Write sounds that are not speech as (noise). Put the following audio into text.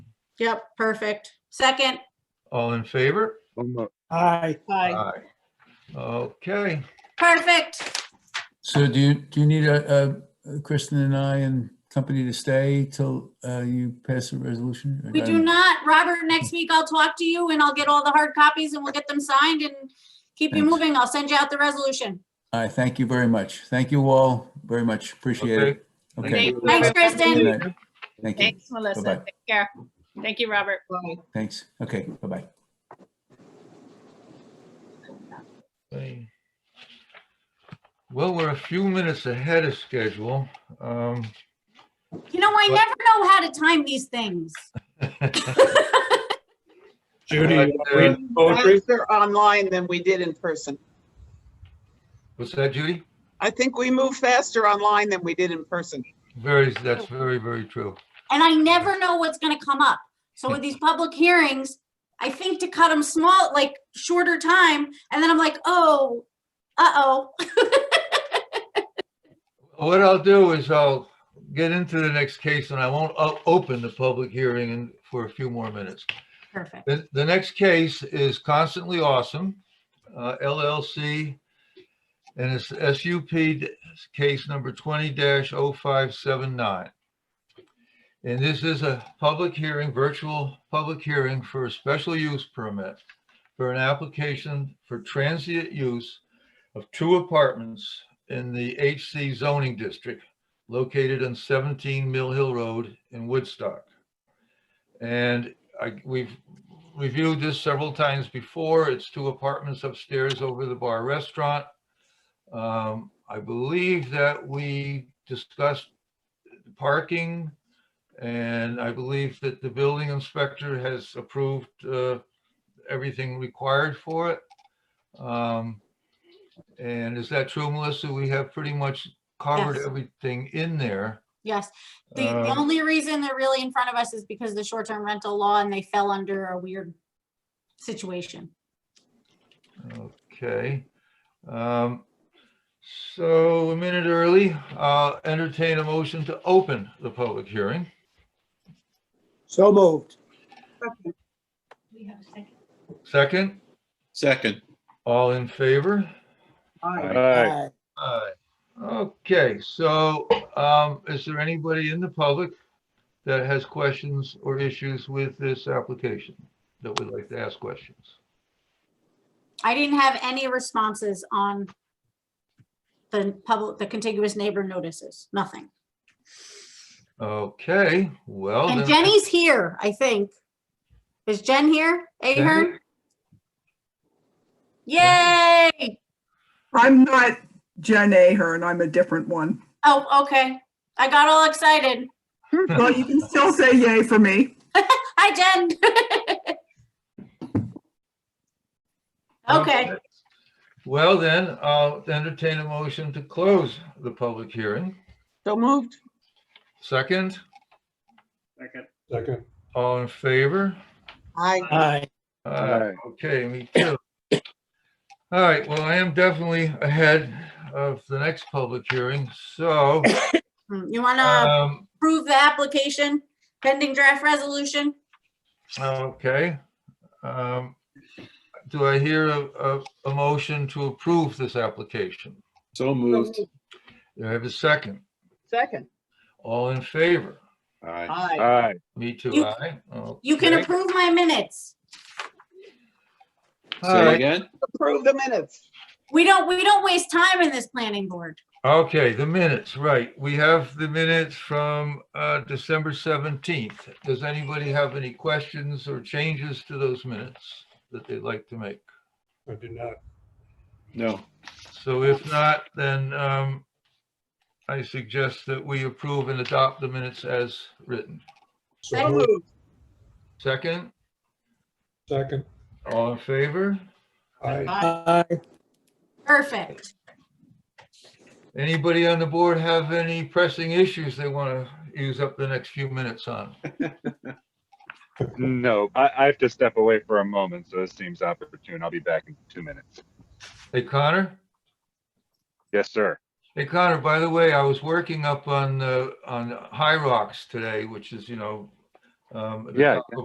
Yep, perfect. Second, All in favor? I'm not- Aye. Aye. Aye. Okay, perfect. So do you, do you need uh uh, Kristen and I and company to stay till uh, you pass a resolution? We do not, Robert, next week I'll talk to you and I'll get all the hard copies and we'll get them signed and keep you Thanks. moving. I'll send you out the resolution. All right, thank you very much. Thank you all very much. Appreciate it. Okay. Okay, Thanks, Good Kristen. night. thank you. Thanks, Melissa. Bye-bye. Take care. Thank you, Robert. Thanks. Okay, bye-bye. Okay. Well, we're a few minutes ahead of schedule. Um, You know, I What? never know how to time these things. Judy, you want to read poetry? faster online than we did in person. What's that, Judy? I think we move faster online than we did in person. Very, that's very, very true. And I never know what's gonna come up. So with these public hearings, I think to cut them small, like shorter time, and then I'm like, oh, uh-oh. What I'll do is I'll get into the next case and I won't o- open the public hearing in- for a few more minutes. Perfect. The, the next case is Constantly Awesome uh, LLC. And it's SUP case number twenty oh 579 And this is a public hearing, virtual public hearing for a special use permit for an application for transient use of two apartments in the HC zoning district located on seventeen Mill Hill Road in Woodstock. And I, we've reviewed this several times before. It's two apartments upstairs over the bar restaurant. Um, I believe that we discussed parking and I believe that the building inspector has approved, uh, everything required for it. Um, and is that true, Melissa? We have pretty much covered Yes. everything in there. Yes. The, the Um, only reason they're really in front of us is because of the short-term rental law and they fell under a weird situation. Okay. Um, So a minute early, I'll entertain a motion to open the public hearing. So moved. Second, Second. all in favor? Aye. Aye. Aye. Aye. Okay, so um, is there anybody in the public that has questions or issues with this application that would like to ask questions? I didn't have any responses on the public, the contiguous neighbor notices, nothing. Okay, well. And Oh, then- Jenny's here, I think. Is Jen here? Ahern? Yay! I'm not Jen Ahern, I'm a different one. Oh, okay. I got all excited. Well, you can still say yay for me. Hi, Jen. (laughs) Okay, Well, then, I'll entertain a motion to close the public hearing. So moved. Second, Second. all in favor? Aye. Aye. Uh, Okay, me too. All right, well, I am definitely ahead of the next public hearing, so Hmm, you want to um, approve the application pending draft resolution? okay. Um, Do I hear a, a- a motion to approve this application? So moved. Do I have a second? Second. All in favor? Aye. Aye. Aye. Me too, You- aye. You can Okay. approve my minutes. All Say right, again? Approve the minutes. We don't, we don't waste time in this planning board. Okay, the minutes, right. We have the minutes from uh, December 17th. Does anybody have any questions or changes to those minutes that they'd like to make? I did not. No. So if not, then um, I suggest that we approve and adopt the minutes as written. So So moved. moved. Second, Second. all in favor? Aye. Aye. Perfect. Anybody on the board have any pressing issues they want to use up the next few minutes on? No, I, I have to step away for a moment, so this seems opportune. I'll be back in two minutes. Hey, Connor? Yes, sir. Hey Connor, by the way, I was working up on, uh, on High Rocks today, which is, you know, um, at the Yeah, top